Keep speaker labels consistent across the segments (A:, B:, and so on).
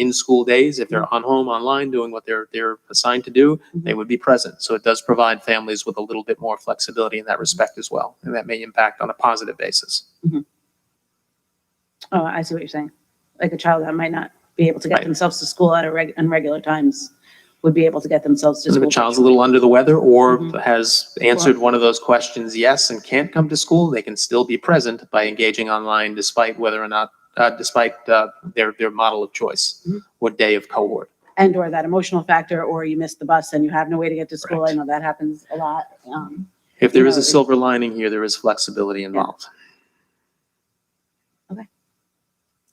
A: in school days, if they're on home, online, doing what they're, they're assigned to do, they would be present. So it does provide families with a little bit more flexibility in that respect as well. And that may impact on a positive basis.
B: Oh, I see what you're saying. Like a child that might not be able to get
A: Right.
B: themselves to school at a reg, on regular times would be able to get themselves to
A: If
B: school.
A: a child's a little under the weather or
B: Mhm.
A: has answered one of those questions, yes, and can't come to school, they can still be present by engaging online despite whether or not, uh, despite, uh, their, their model of choice
B: Mhm.
A: or day of cohort.
B: And or that emotional factor, or you missed the bus and you have no way to get to school. I
A: Correct.
B: know that happens a lot. Um,
A: If there
B: You
A: is a
B: know, it-
A: silver lining here, there is flexibility involved.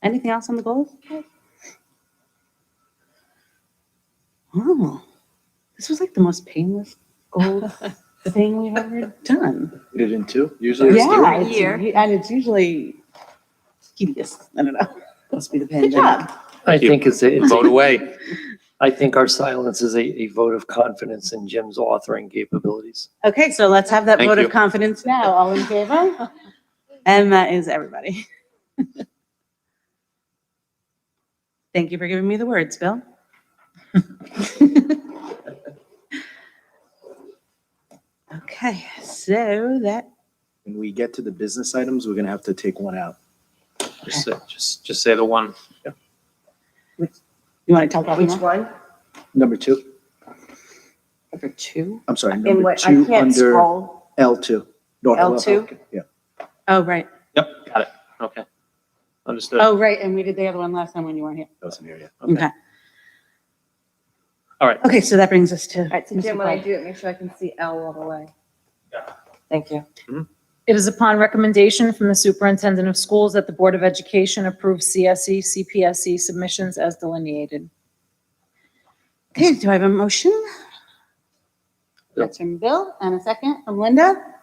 B: anything else on the goals? Oh, this was like the most painless goal thing we've ever done.
C: You did in two? Usually it's three.
B: Yeah,
D: every year.
B: it's- and it's usually tedious. I don't know.
E: Must be the
B: Good job.
E: pandemic.
F: I
A: Thank you.
F: think it's, a- it's,
A: Vote
F: a-
A: away.
F: I think our silence is a, a vote of confidence in Jim's authoring capabilities.
B: Okay, so let's have that
A: Thank
B: vote of
A: you.
B: confidence now. All in favor? And that is everybody. Thank you for giving me the words, Bill. Okay, so that,
C: When we get to the business items, we're gonna have to take one out.
A: Just, say- just, just say the one.
B: you want to talk about
E: Which
B: more?
E: one?
C: Number two,
E: Number two?
C: I'm sorry,
E: In
C: number
E: what, I
C: two
E: can't
C: under
E: scroll.
C: L two. No,
E: L2?
C: okay, Yeah.
B: Oh, right.
A: Yep, got it. Okay. Understood.
B: Oh, right. And we did the other one last time when you weren't here.
C: That was an area.
A: Okay. All right.
B: Okay, so that brings us to.
E: All right, so
B: Mr.
E: Jim, when I
B: Clyde.
E: do it, make sure I can see L all the way. Thank you.
D: It is upon recommendation from the superintendent of schools that the Board of Education approve E, CSE, CPSE submissions as delineated.
B: Okay, do I have a motion?
F: Yeah.
B: That's from Bill and a second from Linda.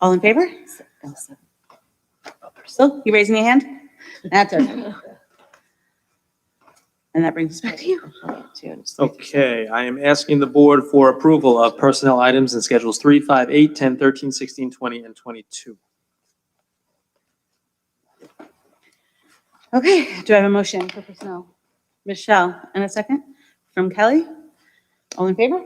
B: All in favor? Bill, you raising your hand? That's okay. And that brings us back to you.
A: Okay, I am asking the board for approval of personnel items in schedules 3, 5, 8, 10, 13, 16, 20, and 22.
B: Okay, do I have a motion for personnel? Michelle, and a second from Kelly. All in favor?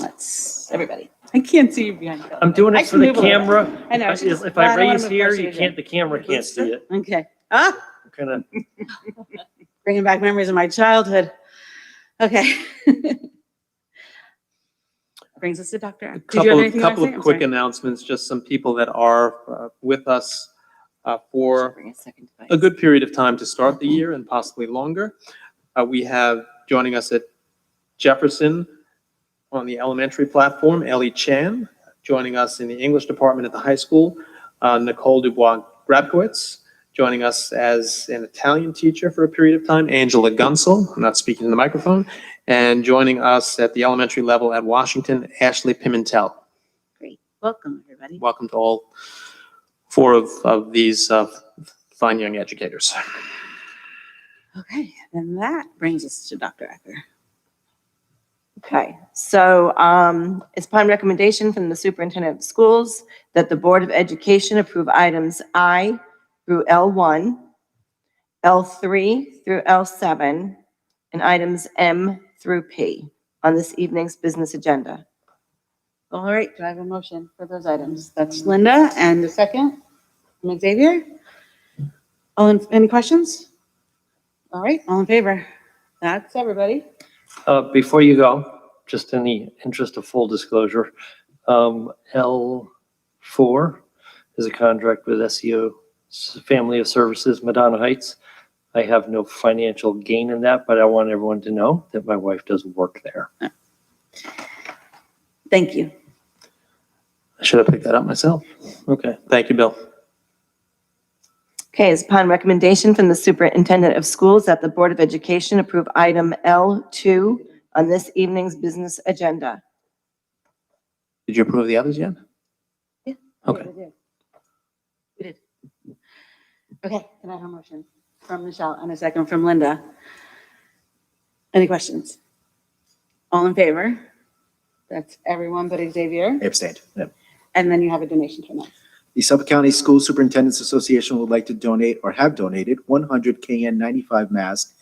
B: Let's, everybody. I can't see you behind Kelly.
F: I'm doing
B: I
F: it for
B: can
F: the
B: move a little.
F: camera.
B: I know.
F: If
B: she's-
F: if
B: well,
F: I
B: don't wanna
F: raise
B: move
F: here,
B: closer
F: you
B: to
F: can't, the camera can't see it.
B: Okay. Ah,
F: Kind of,
B: bringing back memories of my childhood. Okay. Brings us to Dr. Ack. Did you have
A: Couple,
B: anything you wanna
A: couple
B: say?
A: of
B: I'm
A: quick
B: sorry.
A: announcements, just some people that are uh, with us uh, for
E: Bring a second device.
A: a good period of time to start the year and possibly longer. Uh, We have joining us at Jefferson on the elementary platform, Ellie Chan. Joining us in the English department at the high school, uh, Nicole Dubois Grabkowitz. Joining us as an Italian teacher for a period of time, Angela Gunsel, I'm not speaking in the microphone. And joining us at the elementary level at Washington, Ashley Pimentel.
B: Welcome, everybody.
A: Welcome to all four of, of these uh, fine young educators.
B: Okay, and that brings us to Dr. Acker.
E: Okay, so um, it's upon recommendation from the superintendent of schools that the Board of Education approve items I through L1, L3 through L7, and items M through P on this evening's business agenda.
B: All right, do I have a motion for those items? That's Linda, and the second, from Xavier. All, in any questions? All right, all in favor? That's everybody.
F: uh, before you go, just in the interest of full disclosure, um, L four is a contract with SEO S- Family of Services, Madonna Heights. I have no financial gain in that, but I want everyone to know that my wife does work there.
B: Thank you.
A: I should have picked that up myself. Okay, thank you, Bill.
E: Okay, it's upon recommendation from the superintendent of schools that the Board of Education approve item L2 on this evening's business agenda.
A: Did you approve the others yet?
B: Yeah.
A: Okay,
B: Okay, can I have a motion from Michelle and a second from Linda? Any questions? All in favor? That's everyone but Xavier.
C: I abstained. Yep.
B: And then you have a donation from us.
C: The Suffolk County School Superintendent's Association would like to donate or have donated 100 KN95 masks